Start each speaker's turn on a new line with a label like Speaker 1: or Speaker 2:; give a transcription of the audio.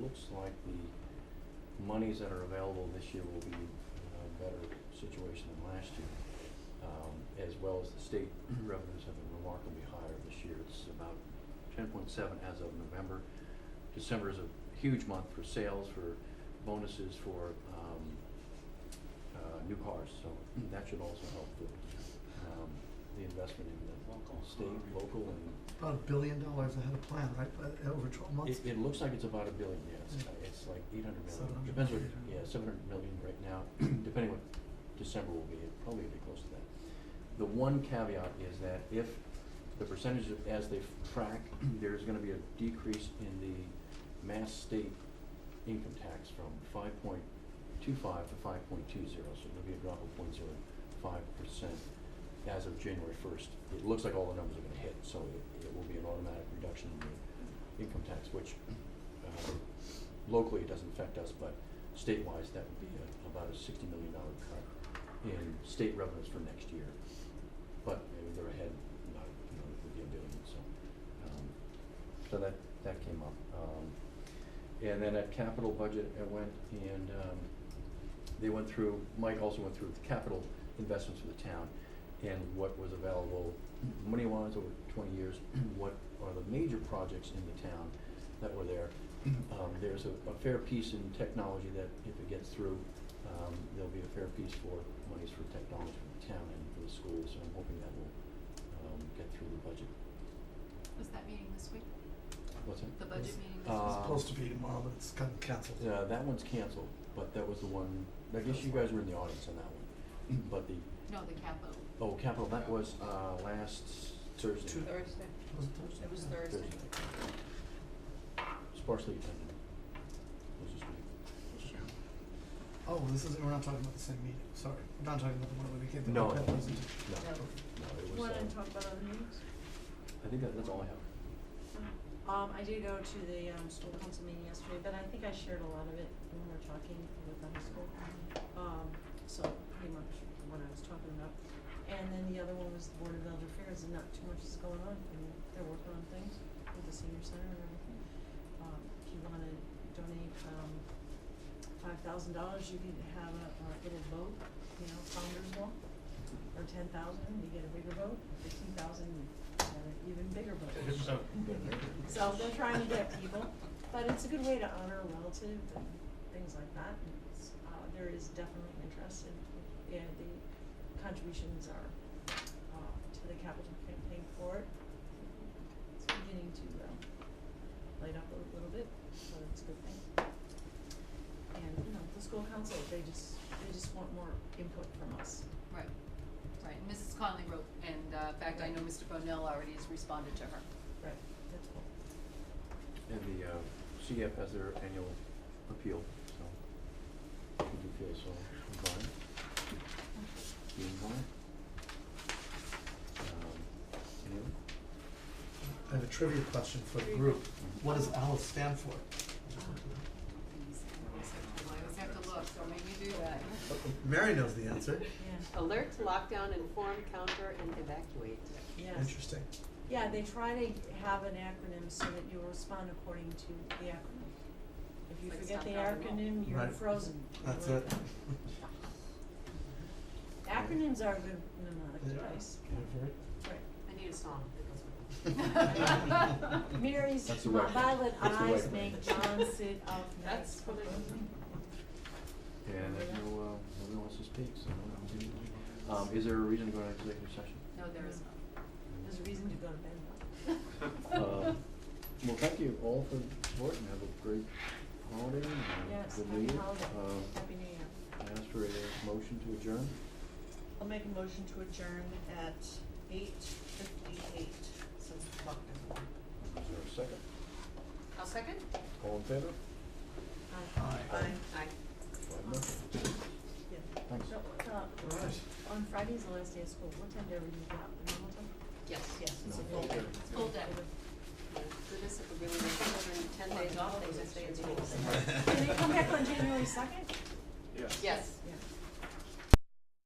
Speaker 1: looks like the monies that are available this year will be in a better situation than last year. Um, as well as the state revenues have been remarkably higher this year. It's about ten point seven as of November. December is a huge month for sales, for bonuses, for, um, uh, new cars, so that should also help the, um, the investment in the
Speaker 2: Local.
Speaker 1: state, local and
Speaker 3: About a billion dollars ahead of plan, right, but over twelve months?
Speaker 1: It, it looks like it's about a billion, yes,
Speaker 3: Yeah.
Speaker 1: it's like eight hundred million,
Speaker 3: 700
Speaker 1: depends what, yeah,
Speaker 3: million.
Speaker 1: seven hundred million right now, depending what December will be, it probably be close to that. The one caveat is that if the percentage of, as they track, there's gonna be a decrease in the mass state income tax from five point two five to five point two zero, so there'll be a drop of point zero five percent as of January first. It looks like all the numbers are gonna hit, so it, it will be an automatic reduction in the income tax, which uh, locally it doesn't affect us, but state-wise, that would be a- about a sixty million dollar cut in state revenues for next year. But uh, they're ahead, not, you know, with the ability, so, um, so that, that came up. Um, and then at capital budget, I went and, um, they went through, Mike also went through the capital investments for the town and what was available money-wise over twenty years, what are the major projects in the town that were there. Um, there's a, a fair piece in technology that if it gets through, um, there'll be a fair piece for monies for technology for the town and for the schools, so I'm hoping that will, um, get through the budget.
Speaker 4: Was that meeting this week?
Speaker 1: What's that?
Speaker 4: The budget meeting this
Speaker 1: Uh,
Speaker 3: It's
Speaker 4: week?
Speaker 3: supposed to be tomorrow, but it's gotten canceled.
Speaker 1: Yeah, that one's canceled, but that was the one, I guess you guys were in the audience on that one, but the,
Speaker 4: No, the capital.
Speaker 1: oh, capital, that was, uh, last Thursday.
Speaker 3: Tuesday.
Speaker 5: Thursday.
Speaker 3: Was it Thursday?
Speaker 5: It was
Speaker 3: Yeah.
Speaker 5: Thursday.
Speaker 1: Sparsely attended. It was just me.
Speaker 3: Oh, this is, we're not talking about the same meeting, sorry, we're not talking about the one where we gave the
Speaker 1: No.
Speaker 3: iPad presentation.
Speaker 1: No, no, it was,
Speaker 5: Wanna
Speaker 1: um,
Speaker 5: talk about other news?
Speaker 1: I think that, that's all I have.
Speaker 5: Um, I did go to the, um, school council meeting yesterday, but I think I shared a lot of it when we were talking with the high school. Um, so pretty much what I was talking about. And then the other one was the Board of Elder Affairs, and not too much is going on. I mean, they're working on things with the senior center and everything. Um, if you wanna donate, um, five thousand dollars, you can have a, a little boat, you know, founder's walk. Or ten thousand, you get a bigger boat, fifteen thousand, an even bigger boat. So they're trying to get people, but it's a good way to honor a relative and things like that. And it's, uh, there is definitely interest in, and the contributions are, uh, to the capital campaign for it. It's beginning to, um, light up a little bit, so it's a good thing. And, you know, the school council, they just, they just want more input from us.
Speaker 4: Right, right. And Mrs. Conley wrote, and uh, in fact, I know Mr. Bonnell already has responded to her.
Speaker 5: Right. That's cool.
Speaker 1: And the uh, CF has their annual appeal, so if you do feel so inclined, be inclined. Um, any other?
Speaker 3: I have a trivia question for the group, what does ALICE stand for?
Speaker 4: Please, I always have to- I always have to look, so make me do that.
Speaker 3: Mary knows the answer,
Speaker 5: Yeah,
Speaker 6: Alert, lockdown, inform, counter, and evacuate.
Speaker 5: yes.
Speaker 3: interesting.
Speaker 5: Yeah, they try to have an acronym so that you respond according to the acronym. If you
Speaker 4: Like
Speaker 5: forget the
Speaker 4: stop, drop, and roll.
Speaker 5: acronym, you're
Speaker 3: Right.
Speaker 5: frozen.
Speaker 3: That's it.
Speaker 5: Acronyms are a good mnemonic
Speaker 3: Yeah.
Speaker 5: device. Right.
Speaker 6: I need a song that goes with it.
Speaker 5: Mary's
Speaker 1: That's the right one.
Speaker 5: violet
Speaker 1: That's the
Speaker 5: eyes
Speaker 1: right
Speaker 5: make
Speaker 1: one.
Speaker 5: John sit up
Speaker 6: That's
Speaker 5: next.
Speaker 6: what it is.
Speaker 1: And if no, uh, nobody wants to speak, so uh, no, I'll do it. Um, is there a reason to go into executive session?
Speaker 4: No, there is not.
Speaker 5: There's a reason to go to bed though.
Speaker 1: Uh, Well, thank you all for supporting, have a great holiday and a
Speaker 5: Yes,
Speaker 1: good
Speaker 5: happy
Speaker 1: new year.
Speaker 5: holiday,
Speaker 1: Uh,
Speaker 5: happy new year.
Speaker 1: I ask for a motion to adjourn.
Speaker 7: I'll make a motion to adjourn at eight fifty-eight, since the clock is on.
Speaker 1: Is there a second?
Speaker 4: I'll second.
Speaker 1: All in favor?
Speaker 5: Uh,
Speaker 7: Aye.
Speaker 6: Aye.
Speaker 1: Five nothing.
Speaker 5: yeah.
Speaker 1: Thanks.
Speaker 5: So, uh,
Speaker 3: Alright.
Speaker 5: on Friday's the last day of school, what time do everybody get out? The normal time?
Speaker 6: Yes.
Speaker 5: Yes, it's a
Speaker 1: No.
Speaker 5: full day.
Speaker 4: Full day.
Speaker 6: Goodness, if we're really making children ten days off, they just stay in school.
Speaker 5: Can they come back on January second?
Speaker 6: Yes.